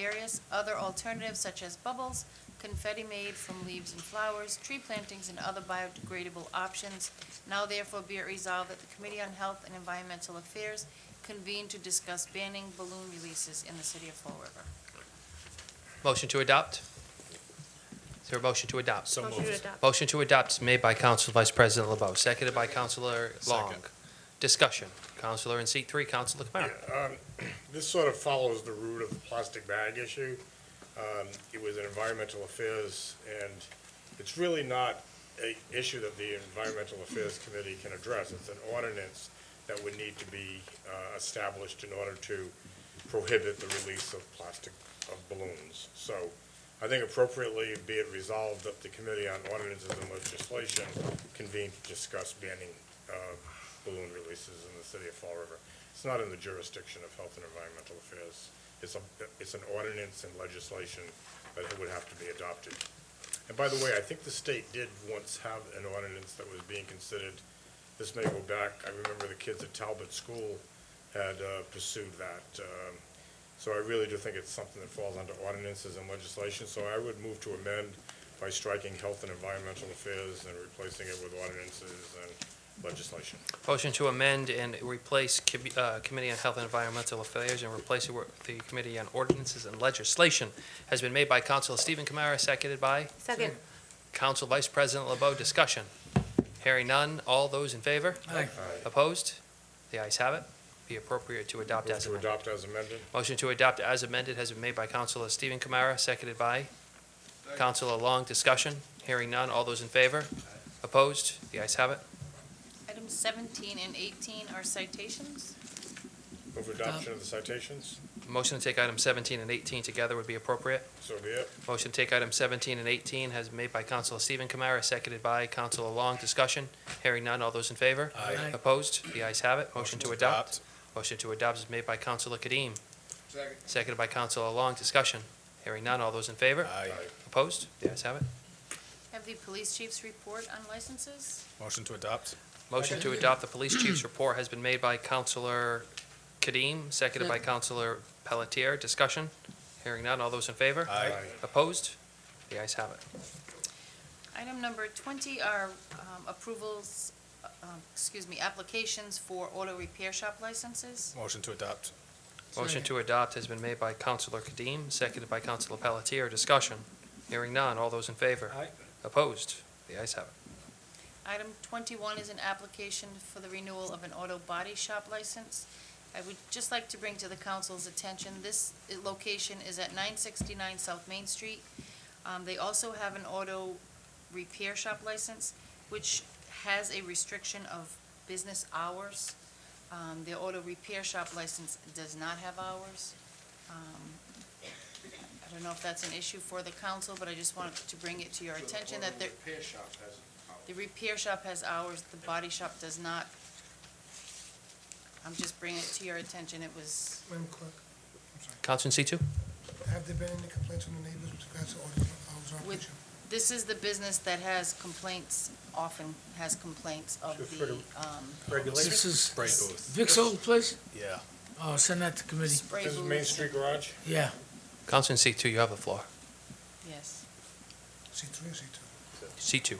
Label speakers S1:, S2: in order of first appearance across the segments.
S1: various other alternatives such as bubbles, confetti made from leaves and flowers, tree plantings, and other biodegradable options. Now therefore be it resolved that the Committee on Health and Environmental Affairs convene to discuss banning balloon releases in the city of Fall River.
S2: Motion to adopt? Is there a motion to adopt?
S3: So
S4: Motion to
S3: moved.
S4: adopt.
S2: Motion to adopt is made by Council Vice President LeBeau, seconded by Councilor Long.
S3: Second.
S2: Discussion. Councilor in seat three, Councilor Kamara.
S5: Um, This sort of follows the root of the plastic bag issue. Um, It was an environmental affairs, and it's really not a issue that the Environmental Affairs Committee can address. It's an ordinance that would need to be uh, established in order to prohibit the release of plastic, of balloons. So I think appropriately, be it resolved that the Committee on Ordinances and Legislation convene to discuss banning uh, balloon releases in the city of Fall River. It's not in the jurisdiction of Health and Environmental Affairs. It's a, it's an ordinance and legislation that would have to be adopted. And by the way, I think the state did once have an ordinance that was being considered. This may go back, I remember the kids at Talbot School had uh, pursued that. Um, So I really do think it's something that falls under ordinances and legislation, so I would move to amend by striking health and environmental affairs and replacing it with ordinances and legislation.
S2: Motion to amend and replace Commi- uh, Committee on Health and Environmental Affairs and replace it with the Committee on Ordinances and Legislation has been made by Councilor Stephen Kamara, seconded by
S4: Second.
S2: Council Vice President LeBeau. Discussion. Hearing none. All those in favor?
S3: Aye.
S2: Opposed? The ayes have it. Be appropriate to adopt
S5: Move
S2: as
S5: to
S2: amended.
S5: adopt as amended?
S2: Motion to adopt as amended has been made by Counselor Stephen Kamara, seconded by Counselor Long. Discussion? Hearing none. All those in favor? Opposed? The ayes have it.
S1: Items 17 and 18 are citations.
S5: Move adoption of the citations?
S2: Motion to take items 17 and 18 together would be appropriate.
S5: So be it.
S2: Motion to take items 17 and 18 has been made by Counselor Stephen Kamara, seconded by Counselor Long. Discussion? Hearing none. All those in favor?
S3: Aye. Aye.
S2: Opposed? The ayes have it. Motion to adopt. Motion to adopt is made by Counselor Kadim. Second. Seconded by Counselor Long. Discussion? Hearing none. All those in favor?
S3: Aye.
S2: Opposed? The ayes have it.
S1: Have the police chief's report on licenses.
S3: Motion to adopt.
S2: Motion to adopt the police chief's report has been made by Counselor Kadim, seconded by Counselor Pelletier. Discussion? Hearing none. All those in favor?
S3: Aye.
S2: Opposed? The ayes have it.
S1: Item number 20 are um, approvals, uh, um, excuse me, applications for auto repair shop licenses.
S3: Motion to adopt.
S2: Motion to adopt has been made by Counselor Kadim, seconded by Counselor Pelletier. Discussion? Hearing none. All those in favor?
S3: Aye.
S2: Opposed? The ayes have it.
S1: Item 21 is an application for the renewal of an auto body shop license. I would just like to bring to the council's attention, this uh, location is at 969 South Main Street. Um, They also have an auto repair shop license, which has a restriction of business hours. Um, Their auto repair shop license does not have hours. Um, I don't know if that's an issue for the council, but I just wanted to bring it to your attention that there, the repair shop has hours, the body shop does not. I'm just bringing it to your attention, it was,
S6: Madam Clerk,
S2: Counselor in situ?
S6: have there been any complaints from the neighbors with regards to audio hours of
S1: With-
S6: operation?
S1: this is the business that has complaints, often has complaints of the, um,
S5: Regulation?
S7: This is
S3: Spray booth.
S7: Vic's old place?
S3: Yeah.
S7: Oh, send that to committee.
S1: spray
S5: This
S1: booths.
S5: is Main Street Garage?
S7: Yeah.
S2: Counselor in situ, you have the floor.
S1: Yes.
S6: C three or C two?
S2: Situ.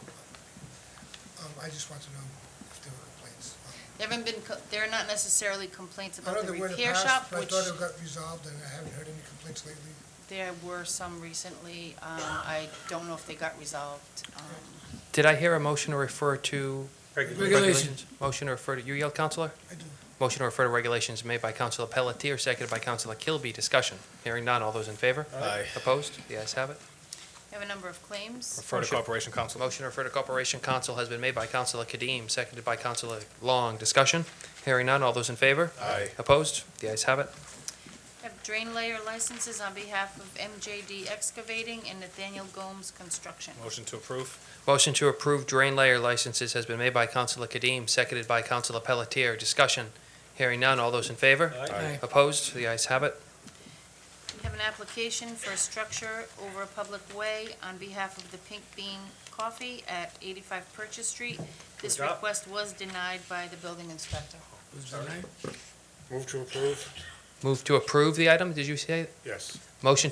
S6: Um, I just want to know if there were complaints. Um,
S1: There haven't been, co- there are not necessarily complaints
S6: I know
S1: about the
S6: there were in the
S1: repair shop,
S6: past, but I
S1: which
S6: thought it got resolved, and I haven't heard any complaints lately.
S1: there were some recently, um, I don't know if they got resolved. Um,
S2: Did I hear a motion to refer to?
S7: Regulations.
S2: Motion to refer to, you yelled, Counselor?
S6: I do.
S2: Motion to refer to regulations made by Counselor Pelletier, seconded by Counselor Kilby. Discussion. Hearing none. All those in favor?
S3: Aye.
S2: Opposed? The ayes have it.
S1: We have a number of claims,
S3: Refer to
S2: Motion-
S3: Corporation Council.
S2: Motion to refer to Corporation Council has been made by Counselor Kadim, seconded by Counselor Long. Discussion. Hearing none. All those in favor?
S3: Aye.
S2: Opposed? The ayes have it.
S1: We have drain layer licenses on behalf of MJD Excavating and Nathaniel Gomes Construction.
S3: Motion to approve.
S2: Motion to approve drain layer licenses has been made by Counselor Kadim, seconded by Counselor Pelletier. Discussion. Hearing none. All those in favor?
S7: Aye.
S2: Opposed? The ayes have it.
S1: We have an application for a structure over a public way on behalf of the Pink Bean Coffee at 85 Purchase Street. This request was denied by the building inspector.
S7: Was the name?
S5: Move to approve?
S2: Move to approve the item, did you say?
S5: Yes.
S2: Motion